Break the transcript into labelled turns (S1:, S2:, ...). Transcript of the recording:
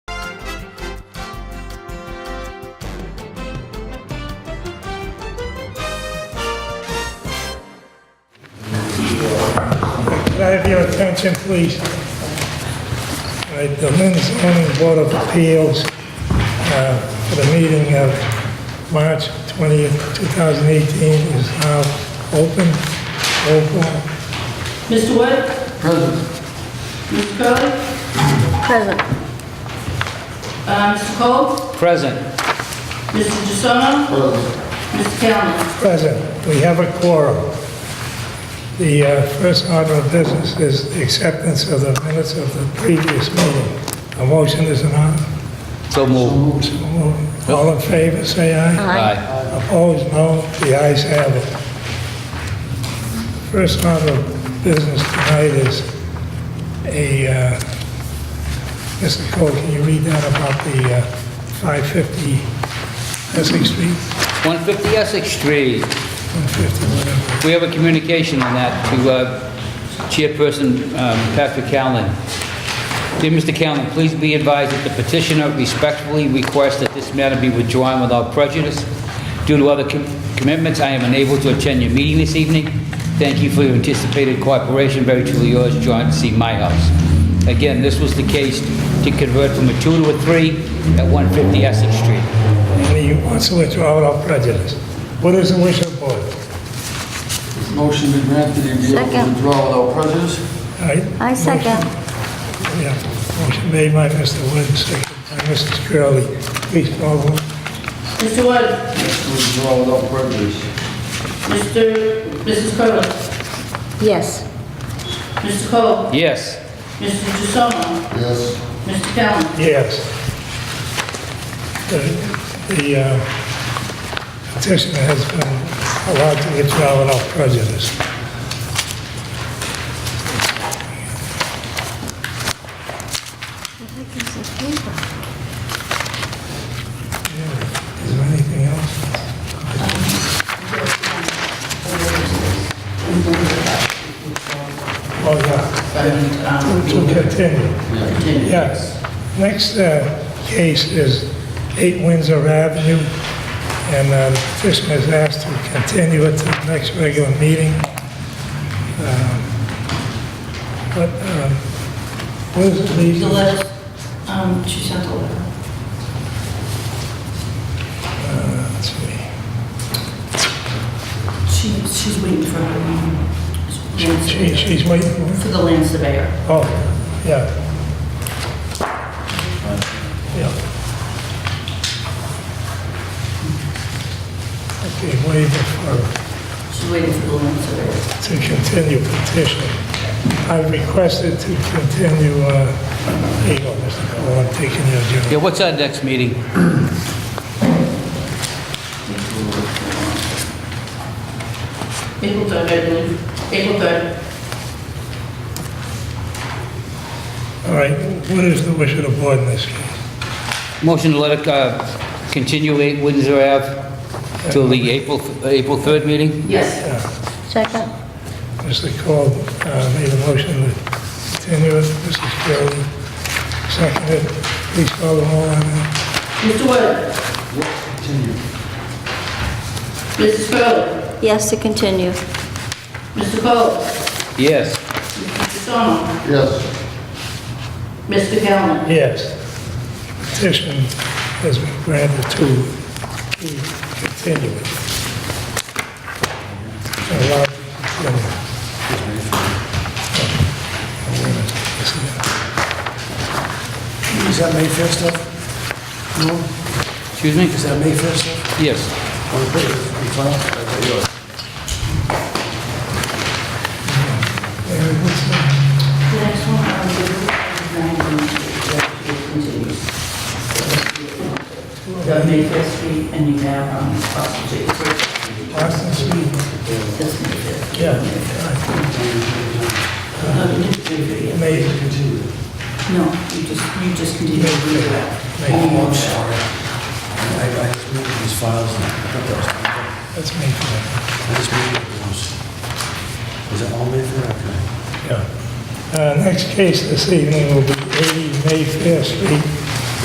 S1: Can I have your attention, please? All right, the Lynn zoning board of appeals uh, for the meeting of March 20th, 2018 is now open. Roll call.
S2: Mr. Wood? Present. Ms. Curley?
S3: Present.
S2: Uh, Mr. Cole?
S4: Present.
S2: Mr. DeSona? Present. Mr. Kalman?
S1: Present, we have a quorum. The uh, first order of business is the acceptance of the minutes of the previous meeting. A motion is an order.
S4: So moved.
S1: So moved. All in favor, say aye.
S4: Aye.
S1: Opposed, no. The ayes have it. First order of business tonight is a, uh, Mr. Cole, can you read that about the uh, 550 Essex Street?
S4: 150 Essex Street.
S1: 150, whatever.
S4: We have a communication on that to uh, Chairperson um, Patrick Callen. Dear Mr. Callen, please be advised that the petitioner respectfully requests that this matter be withdrawn without prejudice. Due to other com- commitments, I am unable to attend your meeting this evening. Thank you for your anticipated cooperation. Very truly yours, John C. Myhouse. Again, this was the case to convert from a two to a three at 150 Essex Street.
S1: And he wants to withdraw without prejudice. What is the wish of the board? All
S5: Motion to grant the appeal for
S3: Second.
S5: withdrawal without prejudice.
S1: right?
S3: I second.
S1: Yeah, motion made by Mr. Wood, seconded by Mrs. Curley. Please call the roll.
S2: Mr. Wood?
S5: Withdrawal without prejudice.
S2: Mr. Mrs. Curley?
S3: Yes.
S2: Mr. Cole?
S4: Yes.
S2: Mr. DeSona?
S5: Yes.
S2: Mr. Kalman?
S1: Yes. The the, uh, petitioner has been allowed to withdraw without prejudice. Yeah. Is there anything else? Oh, yeah,
S2: And, um,
S1: to continue.
S2: continue.
S1: Yes. Next uh, case is 8 Windsor Avenue, and uh, the petitioner is asked to continue it to the next regular meeting. Um, But, um, what is the
S2: The
S1: reason?
S2: letter, um, she sent a letter.
S1: Let's see.
S2: She, she's waiting for her, um, land
S1: She-
S2: surveyor.
S1: She's waiting for
S2: For the land surveyor.
S1: Oh, yeah. Yeah. Okay, waiver for
S2: She's waiting for the land surveyor.
S1: to continue petition. I requested to continue, uh, here you go, Mr. Cole, I'm taking your
S4: Yeah,
S1: adjournment.
S4: what's our next meeting?
S2: April third, I believe. April third.
S1: All right, what is the wish of the board in this case?
S4: Motion to let it uh, continue 8 Windsor Ave till the April, April 3rd meeting?
S2: Yes.
S3: Second.
S1: Mr. Cole uh, made a motion to continue it, Mrs. Curley seconded. Please call the roll on that.
S2: Mr. Wood?
S5: Continue.
S2: Mrs. Curley?
S3: Yes, to continue.
S2: Mr. Cole?
S4: Yes.
S2: Mr. Song?
S5: Yes.
S2: Mr. Kalman?
S1: Yes. Petition has been granted to to continue it. Allow to continue.
S6: Is that May 1st stuff? No?
S4: Excuse me?
S6: Is that May 1st stuff?
S4: Yes.
S6: Or is it in file?
S2: The next one, I'm going to do is 19, the Mayfair Street, and you have, um, Austin Street.
S1: Austin Street,
S2: That's Mayfair.
S1: yeah.
S2: Uh, you didn't do it yet.
S1: May,
S2: No, you just, you just continue to do that.
S1: May.
S6: Oh, I'm sorry. I, I just moved these files, and I thought that was, I
S1: that's May 4th,
S6: just moved those. Is it all May 1st? Okay.
S1: yeah. Uh, Next case this evening will be 80 Mayfair Street,